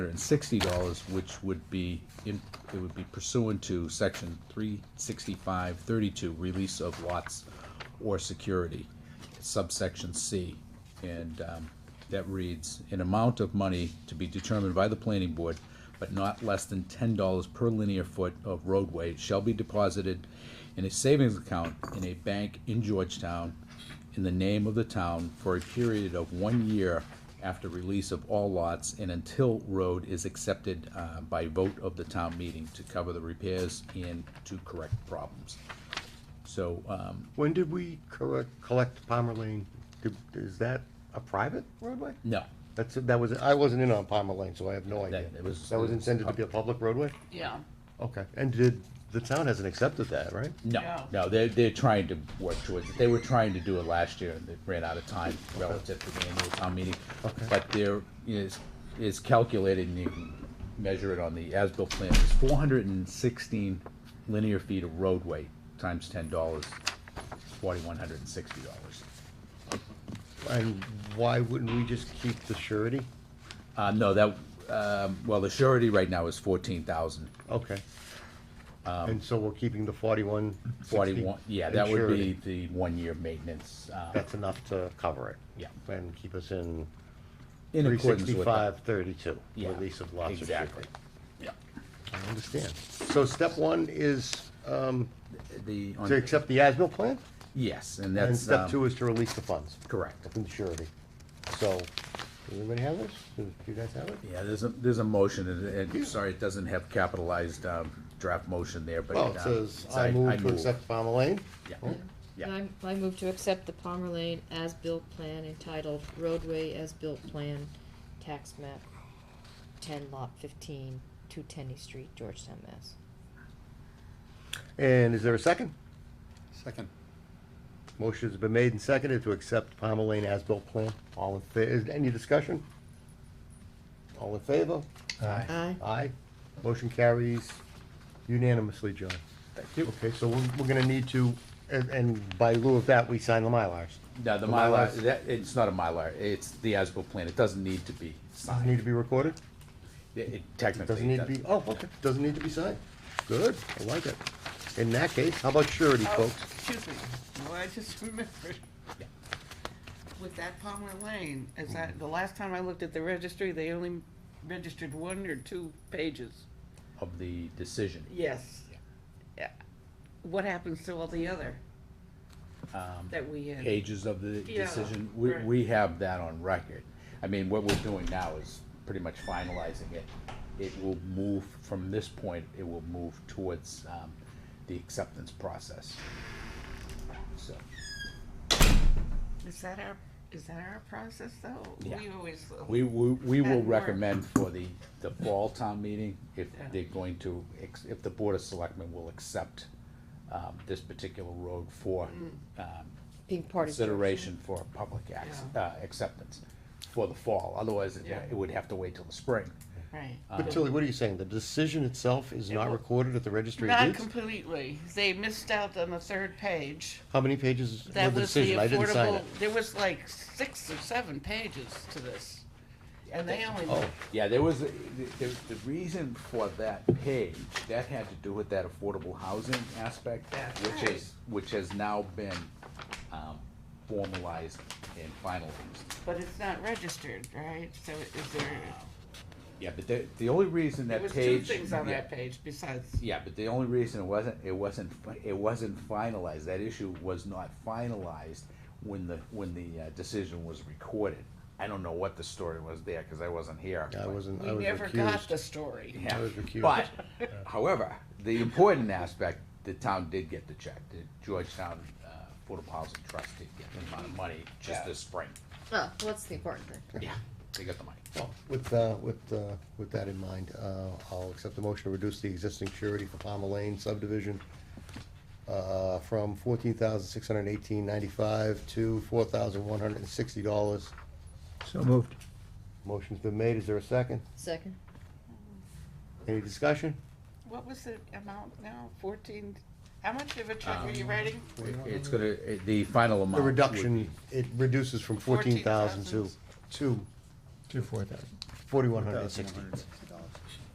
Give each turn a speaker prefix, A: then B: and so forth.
A: hundred and sixty dollars, which would be in, it would be pursuant to section three sixty-five thirty-two, release of lots or security, subsection C. And, um, that reads, an amount of money to be determined by the planning board, but not less than ten dollars per linear foot of roadway shall be deposited in a savings account in a bank in Georgetown in the name of the town for a period of one year after release of all lots and until road is accepted uh, by vote of the town meeting to cover the repairs and to correct problems. So, um,
B: When did we correct, collect Palmer Lane? Did- Is that a private roadway?
A: no,
B: That's, that was, I wasn't in on Palmer Lane, so I have no idea.
A: it was-
B: That was intended to be a public roadway?
C: Yeah,
B: Okay, and did, the town hasn't accepted that, right?
A: no,
C: No.
A: no, they're, they're trying to work towards it. They were trying to do it last year and they ran out of time relative to the annual town meeting. But there is, is calculated and you can measure it on the as-built plan, it's four hundred and sixteen linear feet of roadway times ten dollars, forty-one hundred and sixty dollars.
B: And why wouldn't we just keep the surety?
A: Uh, no, that, um, well, the surety right now is fourteen thousand,
B: Okay. And so we're keeping the forty-one sixty?
A: Um, forty-one, yeah, that would be the one-year maintenance, uh,
B: That's enough to cover it?
A: Yeah.
B: And keep us in
A: in
B: three
A: accordance with. that.
B: sixty-five thirty-two,
A: Yeah,
B: release of lots of
A: Exactly. Yeah.
B: I understand. So step one is, um,
A: The, on-
B: to accept the as-built plan?
A: yes, and
B: And
A: that's,
B: step
A: um,
B: two is to release the funds
A: correct.
B: from the surety. So, does anybody have this? Do you guys have it?
A: Yeah, there's a, there's a motion, and, and, sorry, it doesn't have capitalized, um, draft motion there, but.
B: Well, it
A: um,
B: says,
A: it's
B: I move to accept Palmer Lane.
A: Yeah,
D: And
A: yeah,
D: I'm- I move to accept the Palmer Lane as-built plan entitled roadway as-built plan, tax map, ten lot fifteen, two Tenny Street, Georgetown, Mass.
B: And is there a second?
E: Second.
B: Motion's been made and seconded to accept Palmer Lane as-built plan. All in, fa- is any discussion? All in favor?
E: Aye.
D: Aye.
B: Aye. Motion carries unanimously, John.
A: thank you.
B: Okay, so we're, we're gonna need to, and, and by lieu of that, we sign the Mylars.
A: Now, the
B: The
A: Mylar,
B: Mylars-
A: that, it's not a Mylar, it's the as-built plan, it doesn't need to be
B: Doesn't
A: signed,
B: need to be recorded?
A: It- it technically.
B: Doesn't need to
A: does-
B: be, oh, okay, doesn't need to be signed. Good, I like it. In that case, how about surety,
C: oh,
B: folks?
C: excuse me, well, I just remembered.
A: Yeah.
C: With that Palmer Lane, is that, the last time I looked at the registry, they only registered one or two pages.
A: Of the decision.
C: Yes. Yeah. What happens to all the other?
A: Um,
C: That we had?
A: pages of the
C: Yeah,
A: decision, we,
C: right.
A: we have that on record. I mean, what we're doing now is pretty much finalizing it. It will move, from this point, it will move towards, um, the acceptance process. So,
C: Is that our, is that our process though?
A: Yeah.
C: We always.
A: we, we, we will
C: And we're-
A: recommend for the, the fall town meeting, if
C: Yeah.
A: they're going to, ex- if the Board of Selectmen will accept, um, this particular road for,
C: Mm.
A: um,
D: Being part of.
A: consideration for public ac- uh, acceptance for the fall, otherwise it
C: Yeah.
A: it would have to wait till the spring.
C: Right.
A: uh,
B: But Tilly, what are you saying? The decision itself is not
C: Uh, will-
B: recorded at the registry of
C: Not
B: deeds?
C: completely, they missed out on the third page.
B: How many pages was the
C: That was the
B: decision? I didn't sign
C: affordable,
B: it.
C: there was like six or seven pages to this. And they only,
B: Oh,
A: Yeah, there was, a- there, the reason for that page, that had to do with that affordable housing aspect,
C: That's
A: which
C: right.
A: is, which has now been, um, formalized and finalized.
C: but it's not registered, right? So is there,
A: Yeah, but the, the only reason
C: there
A: that
C: was
A: page.
C: two things on
A: yeah.
C: that page besides,
A: Yeah, but the only reason it wasn't, it wasn't, fi- it wasn't finalized, that issue was not finalized when the, when the uh, decision was recorded. I don't know what the story was there, cause I wasn't here.
B: I wasn't,
C: we
B: I was
C: never got the
B: recused.
C: story.
A: Yeah,
B: I was recused.
A: But, however, the important aspect, the town did get the check, the Georgetown, uh, Affordable Housing Trust did get the amount of money just
C: Yeah.
A: this spring.
D: Oh, what's the important thing?
A: Yeah, they got the money.
B: Well, With, uh, with, uh, with that in mind, uh, I'll accept the motion to reduce the existing surety for Palmer Lane subdivision uh, from fourteen thousand six hundred eighteen ninety-five to four thousand one hundred and sixty dollars.
E: So moved.
B: Motion's been made, is there a second?
D: Second?
B: Any discussion?
C: What was the amount now, fourteen, how much of a
A: Um,
C: check were you writing?
A: It- It's gonna, it- the final amount.
B: The
A: would
B: reduction, it reduces from fourteen thousand to,
C: 14,000.
B: to
E: To four thousand.
B: forty-one hundred and sixty.